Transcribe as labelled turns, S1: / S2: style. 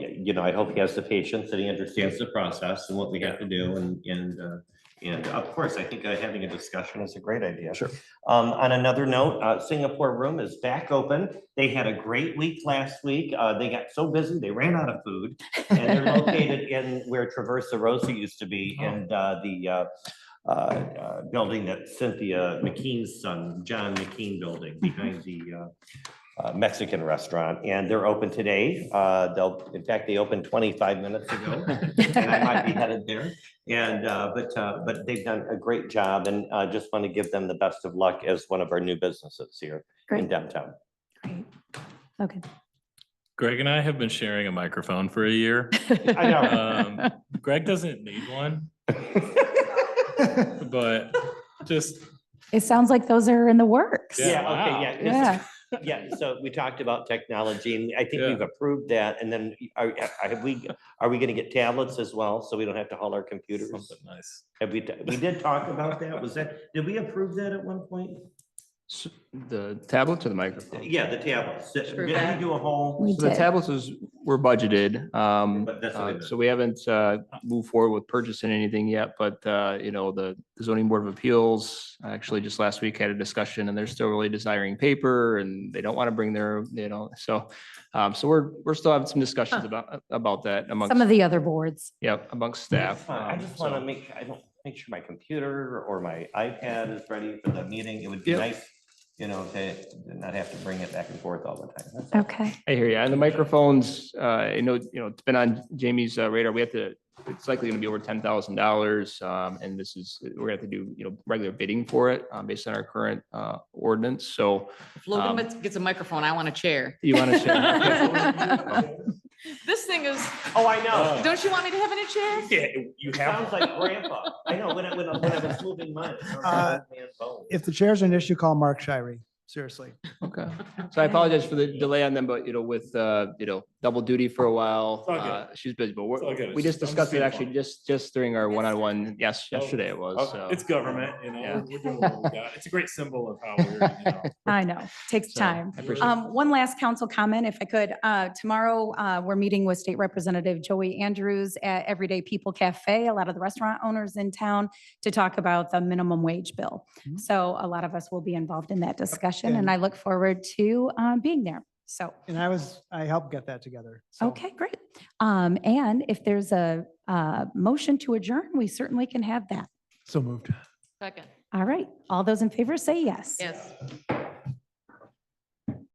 S1: you know, I hope he has the patience that he understands the process and what we have to do and, and, uh, and of course, I think uh, having a discussion is a great idea.
S2: Sure.
S1: Um, on another note, uh, Singapore Room is back open. They had a great week last week. Uh, they got so busy, they ran out of food. And they're located in where Traversa Rosa used to be and, uh, the, uh, uh, uh, building that Cynthia McKean's son, John McKean building behind the, uh, uh, Mexican restaurant, and they're open today. Uh, They'll, in fact, they opened 25 minutes ago. And I might be headed there. And, uh, but, uh, but they've done a great job, and I just want to give them the best of luck as one of our new businesses here in
S3: Great.
S1: downtown.
S3: Great. Okay.
S4: Greg and I have been sharing a microphone for a year.
S1: I know.
S4: Um, Greg doesn't need one, but just,
S3: It sounds like those are in the works.
S4: Yeah,
S1: Yeah, okay,
S4: wow.
S1: yeah. this-
S3: Yeah.
S1: Yeah, so we talked about technology, and I think
S4: Yeah.
S1: we've approved that, and then are, have we, are we going to get tablets as well, so we don't have to haul our computers?
S4: something nice.
S1: Have we, we did talk about that, was that, did we approve that at one point?
S2: S- The tablets or the microphone?
S1: Yeah, the tablets. Did
S5: True
S1: did we
S5: that.
S1: do a
S3: We
S1: whole?
S2: So the
S3: did.
S2: tablets is, were budgeted. Um,
S1: But that's what I
S2: uh,
S1: meant.
S2: so we haven't, uh, moved forward with purchasing anything yet, but, uh, you know, the the zoning board of appeals actually just last week had a discussion and they're still really desiring paper and they don't want to bring their, you know, so, um, so we're, we're still having some discussions
S5: Huh.
S2: about, about that amongst,
S3: Some of the other boards.
S2: yeah, amongst staff.
S1: I
S2: um,
S1: just want to
S2: so-
S1: make, I don't, make sure my computer or my iPad is ready for the meeting. It would be
S2: Yep.
S1: nice, you know, to to not have to bring it back and forth all the time. That's all.
S3: Okay.
S2: I hear you. And the microphones, uh, I know, you know, it's been on Jamie's uh, radar. We have to, it's likely gonna be over ten thousand dollars. Um, and this is, we're gonna have to do, you know, regular bidding for it, um, based on our current, uh, ordinance. So
S5: If Logan
S2: Um,
S5: gets- gets a microphone, I want a chair.
S2: you want to share?
S5: This thing is,
S1: Oh, I know.
S5: don't you want me to have it in a chair?
S1: You Sounds like grandpa. I know, when I, when I when I was moving mine. it sounded like an old man's bone.
S6: if the chair's an issue, call Mark Shirey, seriously.
S2: Okay. So I apologize for the delay on them, but you know, with, uh, you know, double duty for a while,
S4: It's all good.
S2: uh, she's busy, but
S4: It's all good.
S2: we're,
S4: It's
S2: we
S4: just-
S2: just
S4: I'm just
S2: discussed it
S4: being
S2: actually
S4: funny.
S2: just, just during our one-on-one. Yes,
S4: Oh,
S2: yesterday it was. so.
S4: It's government, you
S2: Yeah.
S4: know, we're doing what we got. It's a great symbol of how we're, you know,
S3: I know. Takes
S2: so
S3: time.
S2: I appreciate it.
S3: Um, one last council comment, if I could. Uh, tomorrow, uh, we're meeting with State Representative Joey Andrews at Everyday People Cafe, a lot of the restaurant owners in town, to talk about the minimum wage bill.
S5: Mhm.
S3: So a lot of us will be involved in that discussion and
S6: And-
S3: I look forward to, uh, being there. So,
S6: And I was, I helped get that together. so.
S3: okay, great. Um, and if there's a, uh, motion to adjourn, we certainly can have that.
S6: So moved.
S5: Second,
S3: All right. All those in favor say yes.
S5: yes.